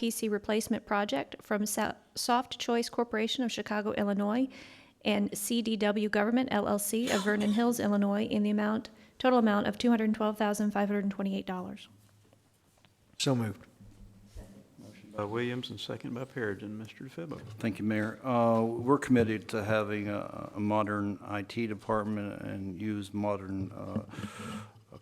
PC replacement project from Sa- Soft Choice Corporation of Chicago, Illinois, and CDW Government LLC of Vernon Hills, Illinois, in the amount, total amount of $212,528. So moved. By Williams and second by Perigin. Mr. DeFebo. Thank you, Mayor. Uh, We're committed to having a a modern IT department and use modern uh,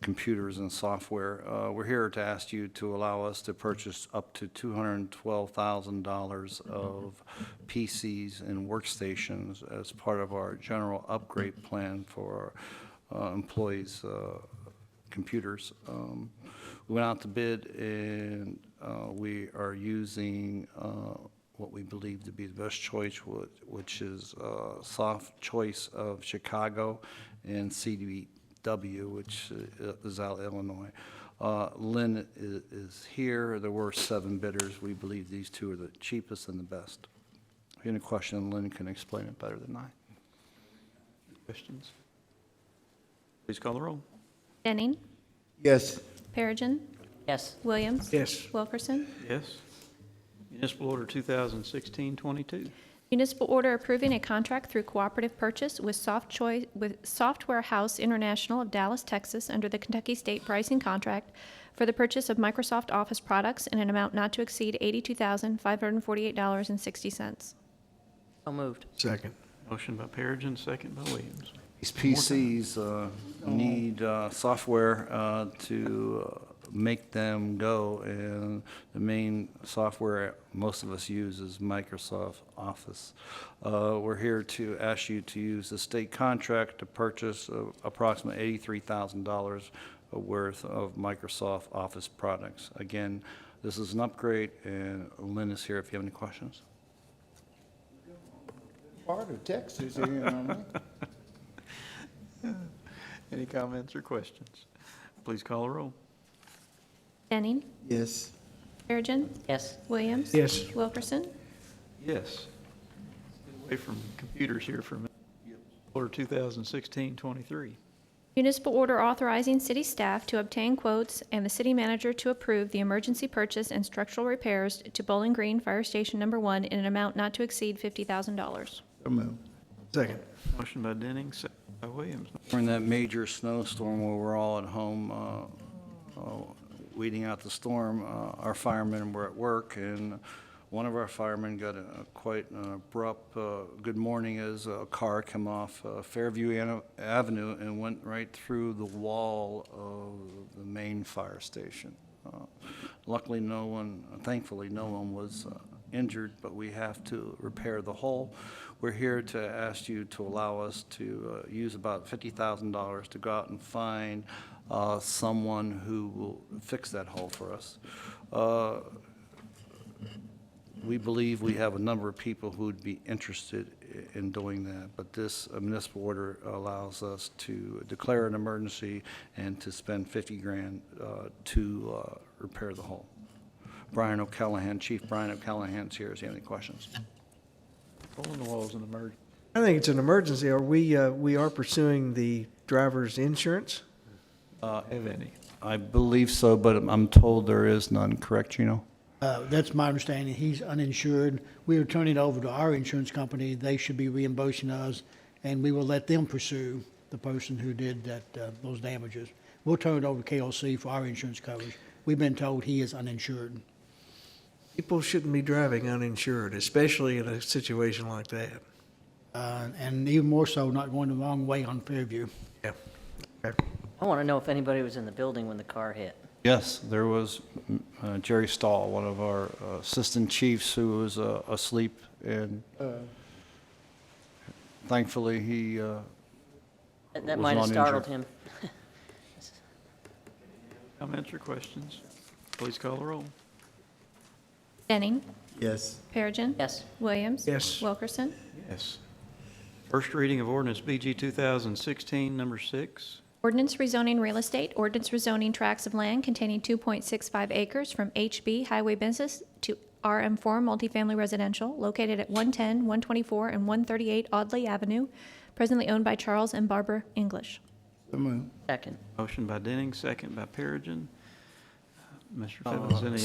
computers and software. Uh, We're here to ask you to allow us to purchase up to $212,000 of PCs and workstations as part of our general upgrade plan for our uh, employees' uh, computers. Um, We went out to bid, and uh, we are using uh, what we believe to be the best choice, whi- which is uh, Soft Choice of Chicago and CDW, which uh, is out of Illinois. Uh, Lynn i- is here. There were seven bidders. We believe these two are the cheapest and the best. If you have Any question, Lynn can explain it better than I. Questions? Please call the roll. Denning. Yes. Perigin. yes, Williams. Yes. Wilkerson. Yes. Municipal Order 2016-22. Municipal order approving a contract through cooperative purchase with Soft Choice, with Software House International of Dallas, Texas, under the Kentucky State Pricing Contract for the purchase of Microsoft Office products in an amount not to exceed eighty-two thousand, five hundred and forty-eight dollars and sixty cents. so moved, Second. Motion by Perigin, second by Williams. These PCs uh, need uh, software uh, to uh, make them go, and the main software most of us use is Microsoft Office. Uh, We're here to ask you to use the state contract to purchase uh, approximately $83,000 worth of Microsoft Office products. Again, this is an upgrade, and Lynn is here if you have any questions. part of Texas, you know what I mean? Any comments or questions? Please call the roll. Denning. Yes. Perigin. yes, Williams. Yes. Wilkerson. Yes. Get Away from computers here for a minute. Order 2016-23. Municipal order authorizing city staff to obtain quotes and the city manager to approve the emergency purchase and structural repairs to Bowling Green Fire Station Number One in an amount not to exceed fifty thousand dollars. So moved. Second. Motion by Denning, second by Williams. During that major snowstorm where we're all at home uh, uh, weeding out the storm, uh, our firemen were at work, and one of our firemen got a a quite an abrupt, uh, good morning as a car came off uh, Fairview Ano- Avenue and went right through the wall of the main fire station. Uh, Luckily, no one, thankfully, no one was uh, injured, but we have to repair the hole. We're here to ask you to allow us to uh, use about $50,000 to go out and find uh, someone who will fix that hole for us. Uh, We believe we have a number of people who would be interested i- in doing that, but this uh, municipal order allows us to declare an emergency and to spend 50 grand uh, to uh, repair the hole. Brian O'Callahan, Chief Brian O'Callahan's here, if you have any questions. Rolling the walls in emergency. I think it's an emergency. Are we, uh, we are pursuing the driver's insurance? uh, Have any? I believe so, but I'm told there is none, correct, Gino? Uh, That's my understanding. He's uninsured. We are turning it over to our insurance company. They should be reimbursing us, and we will let them pursue the person who did that, uh, those damages. We'll turn it over to KLC for our insurance coverage. We've been told he is uninsured. People shouldn't be driving uninsured, especially in a situation like that. Uh, And even more so, not going the wrong way on Fairview. Yeah. Okay. I want to know if anybody was in the building when the car hit, Yes, there was mm, uh, Jerry Stahl, one of our uh, assistant chiefs, who was uh, asleep, and thankfully, he, uh, That- that Was might have not injured. startled him. Comments or questions? Please call the roll. Denning. Yes. Perigin. Yes, Williams. Yes. Wilkerson. Yes. First reading of ordinance BG 2016, number six. Ordinance rezoning real estate, ordinance rezoning tracts of land containing 2.65 acres from HB Highway Business to RM4 Multifamily Residential located at 110, 124, and 138 Audley Avenue, presently owned by Charles and Barbara English. So moved. second. Motion by Denning, second by Perigin. Mr. Fittles, Uh, any